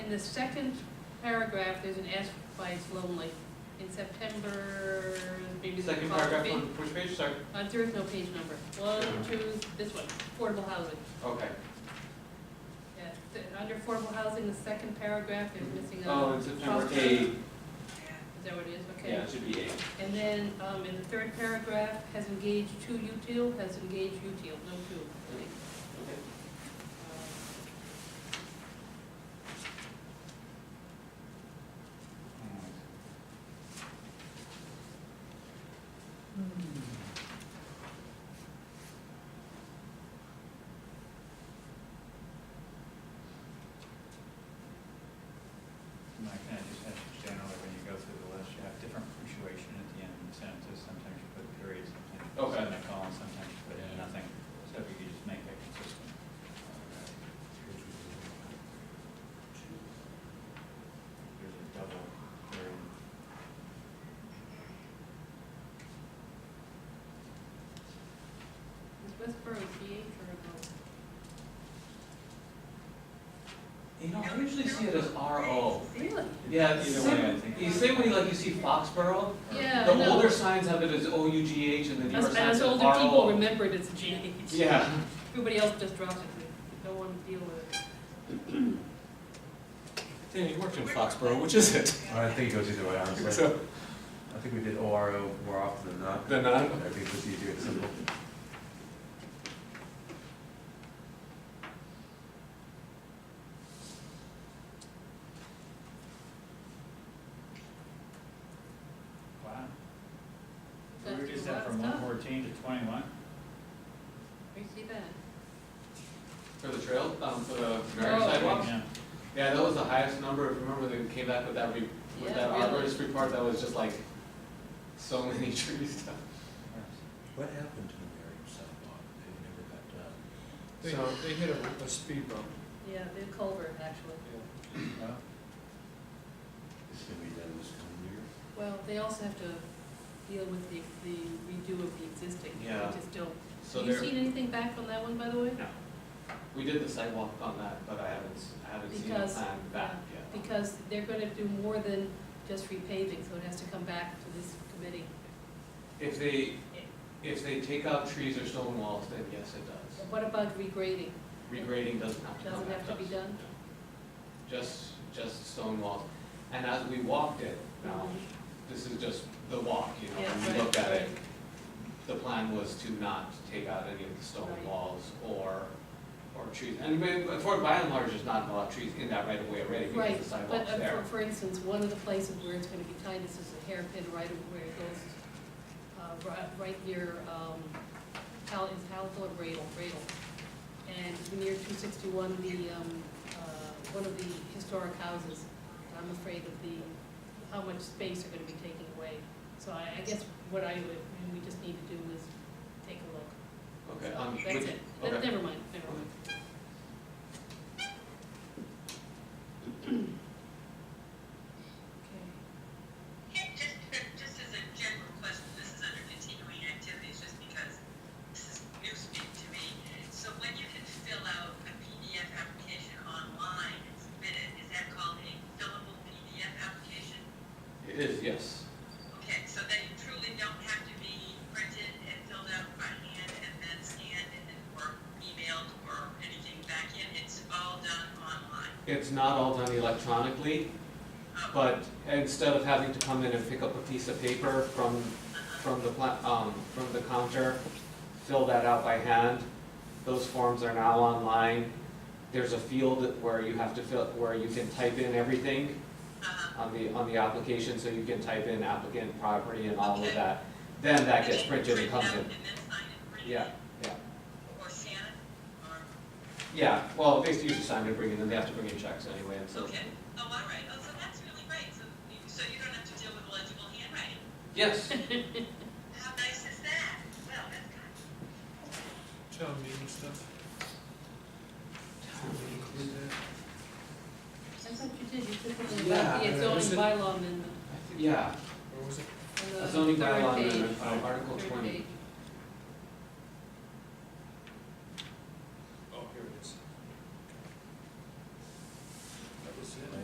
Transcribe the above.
the second paragraph, there's an S by It's Lonely. In September, maybe the Second following paragraph page. on which page, sorry? Uh, there is no page number. One, two, this one, affordable housing. Okay. Yeah, th- under affordable housing, the second paragraph, there's missing a. Oh, it's September foster- eight, Is that what it is? Okay. yeah, it should be eight. And then, um, in the third paragraph, has engaged two util, has engaged util, no two. Um, Okay. Hmm. My kind of just that's generally when you go through the list, you have different punctuation at the end of sentences, sometimes you put periods, sometimes you put Okay. a colon, sometimes you put Yeah. nothing. So if you could just make that consistent. There's a double period. Is Westboro a CH or a O? You know, I usually see it as RO. Really? Yeah, it's Either way, I sim- think. you say when you like you see Foxborough, Yeah, I the know. older signs have it as O U G H and the newer Uh, As, as signs have RO. older people remember it, it's a GH. Yeah. Everybody else just drops it, no one deal with it. Dan, you worked in Foxborough, which is it? I think it goes either way, honestly. So, I think we did ORO more often than not. Than not? Mm-hmm. I think it's easier, it's simple. Wow. We That's reduced a lot that of from stuff. one fourteen to twenty-one? Where you see that? For the trail, um, for the Oh. various sidewalks. Yeah. Yeah, that was the highest number, if you remember when they came back with that re, with Yeah, that really. arborist report, that was just like, so many trees down. What happened to the Merriam sidewalk? It never got done. they, So- they hit a, a speed bump. Yeah, the culvert, actually. Well, It's gonna be done this coming year. Well, they also have to deal with the, the redo of the existing, Yeah. which is still. So Have you there, seen anything back on that one, by the way? we did the sidewalk on that, but I haven't, s- I haven't seen a Because- plan back yet. Because they're gonna do more than just repaving, so it has to come back to this committee. If they, if they take out trees or stone walls, then yes, it does. But What about regrading? Regrading doesn't have to come Doesn't back have to be us. done? No. Just, just stone walls. And as we walked it, now, this is just the walk, you know, Mm-hmm. Yeah, when right, we looked at it, right. the plan was to not take out any of the Right. stone walls or, or trees. And we- but for, by and large, there's not a lot of trees in that right of way already because Right, the but sidewalk's uh, for, there. for instance, one of the places where it's gonna be tight is this hairpin right of where it goes, uh, right, right near, um, Hal, is Halville or Bradle, Bradle. And near two sixty-one, the, um, uh, one of the historic houses, I'm afraid of the, how much space are gonna be taken away. So I, I guess what I would, and we just need to do is take a look. Okay, um, That's which- it, Ne- okay. never mind, never mind. Okay. Just, just as a general question, this is under continuing activities, just because this is new speak to me. So when you can fill out a PDF application online and submit it, is that called a fillable PDF application? It is, yes. Okay, so that you truly don't have to be printed and filled out by hand and then scanned and then, or emailed or anything back in, it's all done online. Uh, It's not all done electronically, but instead of having to come in and pick up a piece of paper from, from the, pla- um, from the counter, fill that out by hand, those forms are now online. There's a field where you have to fill, where you can type in everything Uh, on the, on the application, so you can type in applicant, property, and all of that. Then that gets printed and comes Print in. it out and then sign it, print it. Yeah, yeah, Or scan it, or yeah, well, basically you just sign it, bring it in, they have to bring in checks anyway, and so. Okay, oh, all right, oh, so that's really great, so you, so you don't have to deal with legible handwriting. Yes. How nice is that? Well, that's kind of. Town meeting stuff. Did we include that? I thought you did, you took it about Yeah, the uh, is zoning it- bylaw amendment. Yeah, Or was it? on the zoning third bylaw page, amendment, uh, Article third twenty. page. Oh,